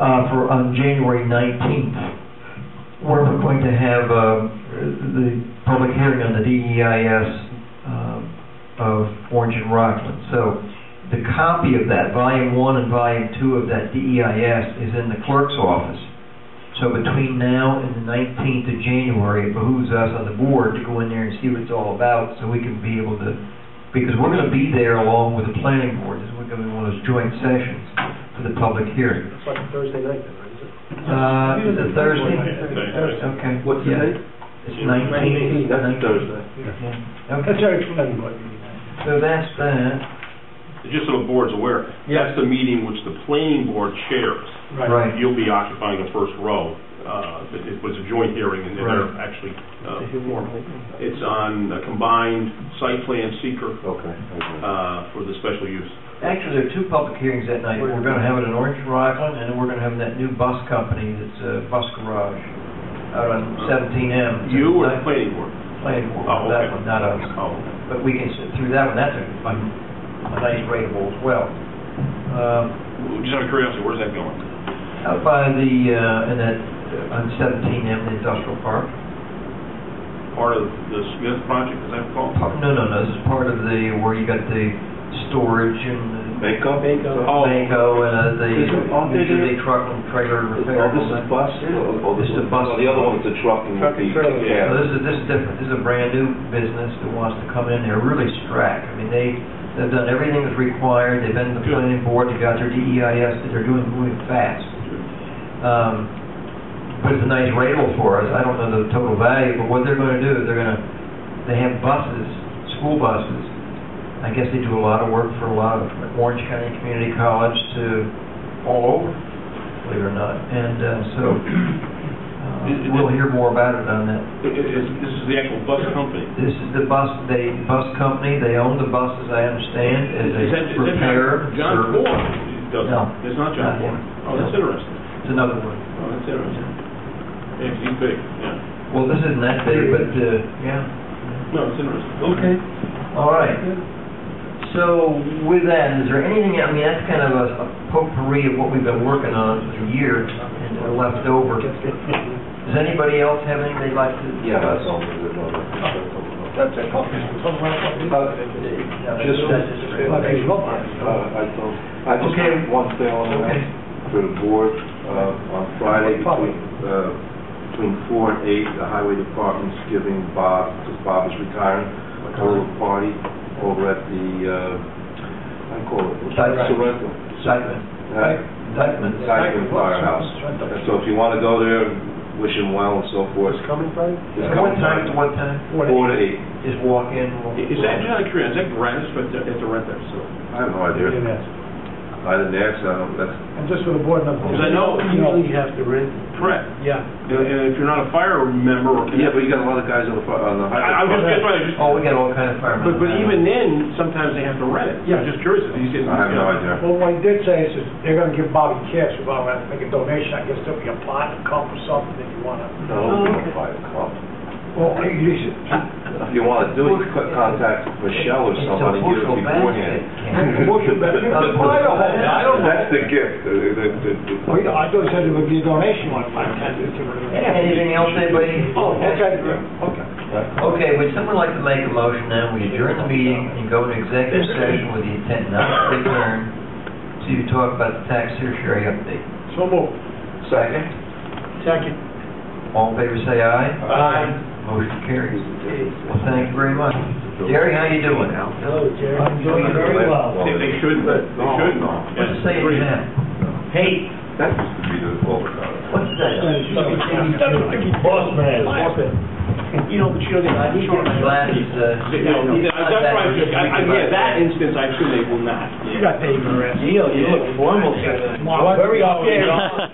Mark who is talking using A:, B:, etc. A: uh, for, on January 19th, where we're going to have uh, the public hearing on the DEIS uh, of Orange and Rockland. So the copy of that, volume one and volume two of that DEIS is in the clerk's office. So between now and the 19th of January, it behooves us on the board to go in there and see what it's all about, so we can be able to, because we're going to be there along with the planning board, this is going to be one of those joint sessions for the public hearing.
B: It's like a Thursday night then, right?
A: Uh, is
B: Is it?
A: it Thursday? Okay.
C: What's the
A: Yeah.
C: date?
A: It's 19th.
C: That's Thursday.
A: Yeah.
B: That's
A: Okay,
B: our planning board meeting.
A: so that's that.
D: Just so the board's aware,
B: Yeah.
D: that's the meeting which the planning board chairs.
A: Right.
D: You'll be occupying the first row. Uh, It it was a joint hearing, and they're
A: Right.
D: actually uh, formal. It's on a combined site plan seeker
C: Okay.
D: uh, for the special use.
A: Actually, there are two public hearings that night. We're going to have it in Orange and Rockland, and then we're going to have that new bus company that's uh Bus Garage out on 17M.
D: Uh, You or the planning board?
A: Planning board,
D: Oh,
A: that
D: okay.
A: one, not us.
D: Oh,
A: But we can sit through that one. That's a a a nice rateable as well. Um,
D: just out of curiosity, where's that going?
A: Out by the, uh, in that, on 17M, the industrial park.
D: Part of the Smith project, is that called?
A: Part- No, no, no, this is part of the, where you got the storage and the
C: Makeup?
B: Makeup.
D: Oh.
A: Banco and uh, the,
C: Is it on there?
A: usually truck and trailer
C: Oh,
A: repair. and
C: this
A: all
C: is
A: that.
C: bus? Oh,
A: This is a bus.
C: Oh, The other one is a truck and.
B: Truck and
A: So
B: trailer.
C: Yeah.
A: this is, this is different, this is a brand-new business that wants to come in, they're really strapped. I mean, they, they've done everything that's required, they've been to the
D: Good.
A: planning board, they've got their DEIS, they're doing, moving fast. Um, But it's a nice rateable for us, I don't know the total value, but what they're gonna do, is they're gonna, they have buses, school buses. I guess they do a lot of work for a lot of, from Orange County Community College to all over, believe it or not, and uh, so, uh, we'll hear more about it on that
D: It- it- it's- This is the actual bus company.
A: this is the bus, they, bus company, they own the buses, I understand, as
D: Is
A: a
D: that- is that
A: repair.
D: John
A: service.
D: Ford does
A: No.
D: it. It's not
A: Not
D: John Ford.
A: him.
D: Oh, that's
A: No.
D: interesting.
A: It's another one.
D: Oh, that's interesting. Yeah, he's big, yeah.
A: Well, this isn't that big, but, uh, yeah.
D: No, it's interesting.
A: Okay. All right. So with that, is there anything, I mean, that's kind of a a potpourri of what we've been working on for the year and are left over.
B: Gets good.
A: Does anybody else have anything they'd like to?
C: Yeah, that's all. That's
B: Uh,
C: a copy.
A: Yeah,
C: Just,
A: that's just great.
B: Okay.
C: Uh, I don't- I just
A: Okay.
C: have one thing on
A: Okay.
C: that, for the board, uh, on Friday between, uh, between four and eight, the highway department's giving Bob, because Bob is retiring, a little party over at the, uh, I call it,
A: Dyke.
C: Sorrento.
A: Excitement,
C: Uh,
A: excitement.
C: Dykeman Firehouse. And so if you want to go there, wish him well and so forth.
B: What's coming Friday?
C: it's
A: From what
C: coming
A: time to
C: Friday.
A: what time?
B: What?
C: Four to eight,
A: Just walk in? we'll-
D: Is that, just out of curiosity, is that gratis, but they have to rent there, so?
C: I have no idea,
B: And
C: I didn't ask, I don't, that's,
B: just for the board members.
D: Because I know-
B: Usually you have to rent.
D: Correct.
B: Yeah.
D: And and if you're not a fire member or...
C: yeah, but you got a lot of guys on the, fi- on the
D: I I was
C: highway.
D: just, that's what I just...
A: Oh, we got all kinds of firemen.
D: But, but even then, sometimes they have to rent it.
B: Yeah.
D: I'm just curious if he's...
C: I have no idea.
B: Well, what I did say is that they're gonna give Bobby cash, if Bobby wants to make a donation, I guess there'll be a pot, a cup or something if you wanna.
C: No, we don't buy a cup.
B: Well, you should.
C: If you want to do it, you could contact Michelle or
A: It's a
C: somebody, give it
A: bushel
C: beforehand.
A: basket.
B: Well, I don't know. I don't know.
C: That's the gift. Uh, the- the- the-
B: Oh, yeah, I thought you said it would be a donation, one of my ten, fifteen.
A: Anything else, anybody?
B: Oh, okay, okay.
A: Okay, would someone like to make a motion now, we adjourn the meeting and go into executive session with the intent not to return to talk about the tax surcharge update?
B: So moved.
A: Second.
B: Second.
A: All in favor, say aye.
B: Aye.
A: Motion carries. Well, thank you very much. Jerry, how you doing?
B: Hello, Jerry. I'm doing very well.
D: They they shouldn't, they
C: No.
D: shouldn't.
A: What's it say in that? Hey,
C: That used to be the overcard.
A: what's that?
B: Boss man.
D: You know, but you know, they...
A: I need my glasses, uh,
D: They- no, no, That's why I'm just, I, I, yeah, that instance, I assume they will not.
B: You got paper.
A: You look formal.
B: I'm very scared.